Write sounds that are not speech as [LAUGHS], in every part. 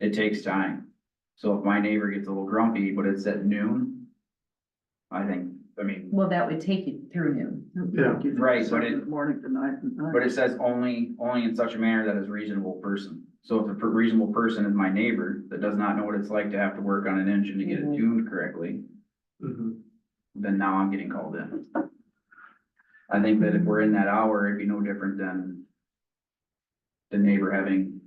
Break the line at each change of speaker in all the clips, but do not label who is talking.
It takes time. So if my neighbor gets a little grumpy, but it's at noon. I think, I mean,
Well, that would take you through noon.
Yeah.
Right, but it-
Morning to night and night.
but it says only, only in such a manner that is reasonable person. So if a per- reasonable person is my neighbor that does not know what it's like to have to work on an engine to get it
Mhm.
tuned correctly,
Mhm.
then now I'm getting called in. I think that if we're in that hour, it'd be no different than the neighbor having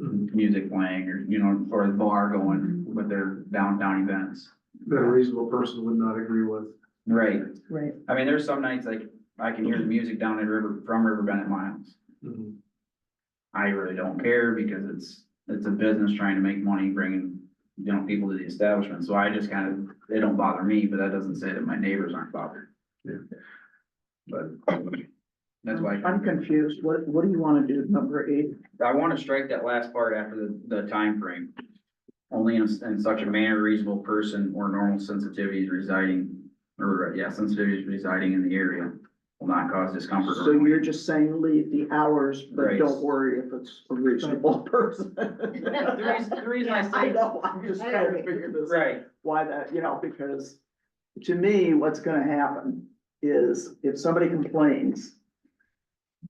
Mhm.
music playing or, you know, or the bar going with their downtown events.
That a reasonable person would not agree with.
Right.
Right.
I mean, there's some nights like I can hear the music down at River, from River Bennett Miles.
Mhm.
I really don't care because it's, it's a business trying to make money, bringing, you know, people to the establishment. So I just kind of, they don't bother me, but that doesn't say that my neighbors aren't bothered.
Yeah.
But that's why
I'm confused. What, what do you want to do, number eight?
I want to strike that last part after the, the time frame. Only in, in such a manner reasonable person or normal sensitivities residing, or, yeah, sensitivities residing in the area will not cause discomfort. or
So you're just saying leave the hours, but
Right.
don't worry if it's a reasonable person.
The reason, the reason I
I
say,
know, [LAUGHS] I'm just trying to figure this out,
right,
why that, you know, because to me, what's gonna happen is if somebody complains,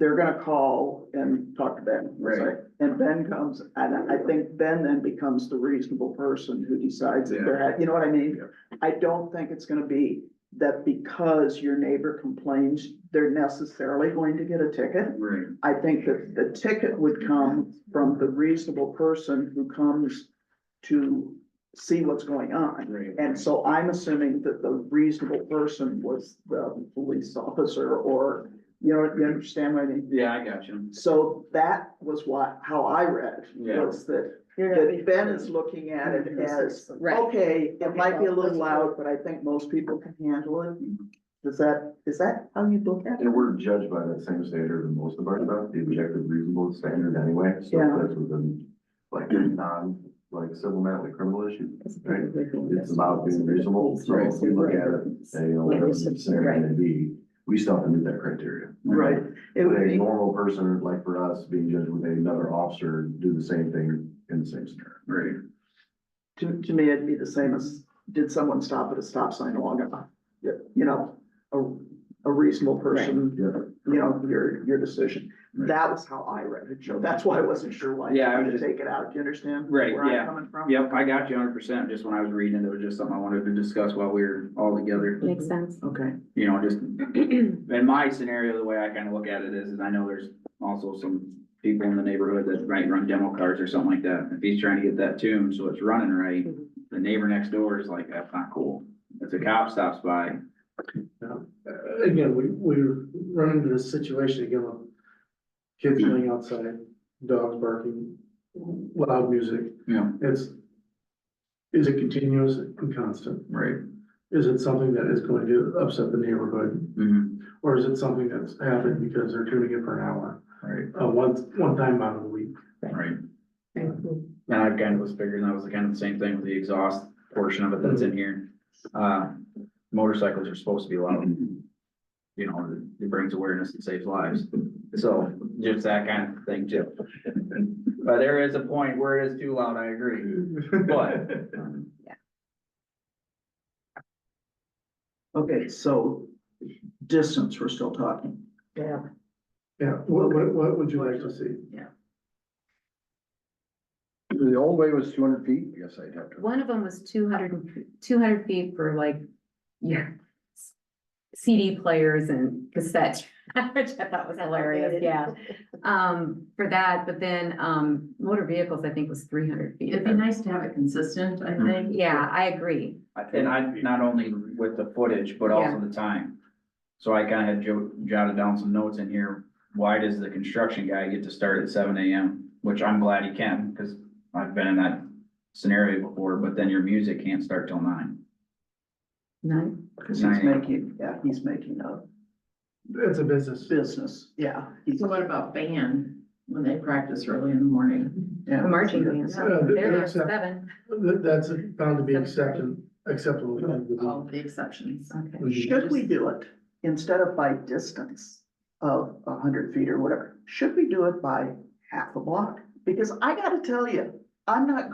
they're gonna call and talk to Ben.
Right.
It's like- And Ben comes, and I think Ben then becomes the reasonable person who decides if they're, ha- you know what I mean? I don't think it's gonna be that because your neighbor complains, they're necessarily going to get a ticket.
right,
I think that the ticket would come from the reasonable person who comes to see what's going on.
right.
And so I'm assuming that the reasonable person was the police officer or, you know, you understand what I mean?
Yeah, I got you.
So that was what, how I read,
Yeah.
was that, that Ben is looking at it as,
Right.
okay, it might be a little loud, but I think most people can handle it. Is that, is that how you look at it?
And we're judged by that same standard in most of our stuff, the objective reasonable standard anyway, so
Yeah.
that's within like non, like civil matter, like criminal issue. Right. It's about being reasonable, so if we look at it, and you know, whatever the scenario may be, we still have to meet that criteria.
Right. It would
Would a
be,
normal person, like for us, being judged with another officer, do the same thing in the same scenario.
Right,
to, to me, it'd be the same as, did someone stop at a stop sign long enough? You you know, a, a reasonable person,
Yeah.
you know, your, your decision.
Mm-hmm. Right.
That was how I read it, Joe. That's why I wasn't sure why you
Yeah, I
wanted
was
to
just-
take it out. Do you understand?
Right,
where I'm
yeah.
Coming from?
yep, I got you hundred percent, just when I was reading it, it was just something I wanted to discuss while we were all together,
Makes sense.
Okay.
you know, just. [CLEARS THROAT] In my scenario, the way I kind of look at it is, is I know there's also some people in the neighborhood that might run demo cars or something like that, if he's trying to get that tuned, so it's running right.
Mhm.
The neighbor next door is like, that's not cool, if the cop stops by,
Uh, Again, we, we run into this situation again with kids playing outside, dogs barking, loud music.
Yeah.
It's, is it continuous and constant?
right?
Is it something that is going to upset the neighborhood?
Mm-hmm,
Or is it something that's happened because they're tuning it for an hour,
right,
uh, once, one time out of the week?
right. And I kind of was figuring that was kind of the same thing with the exhaust portion of it that's in here. Uh, motorcycles are supposed to be loud. You know, it brings awareness and saves lives. So just that kind of thing too. But there is a point where it is too loud, I agree. But-
Okay, so distance, we're still talking.
Yeah.
[LAUGHS] Yeah, what, what, what would you like to see?
The old way was two hundred feet, I guess I'd have
One of them was 200 and- 200 feet for like, yeah. CD players and cassette, [LAUGHS] which I thought was hilarious, yeah. Um, for that, but then, um, motor vehicles, I think was three hundred feet.
It'd be nice to have it consistent, I
Hmm.
think.
Yeah, I agree.
And I, not only with the footage, but also the time. So I kind of had jo- jotted down some notes in here. Why does the construction guy get to start at seven AM? Which I'm glad he can, because I've been in that scenario before, but then your music can't start till nine.
No,
Cause he's
Nine.
making, yeah, he's making a
It's a business.
business, yeah. he's-
So what about band, when they practice early in the morning?
yeah.
a marching band.
Uh,
They're there
that's a-
for seven.
That, that's bound to be accepted,
Acceptable.
acceptable. Mm-hmm.
All the exceptions.
Okay.
Should we do it instead of by distance of a hundred feet or whatever? Should we do it by half a block? Because I gotta tell you, I'm not good.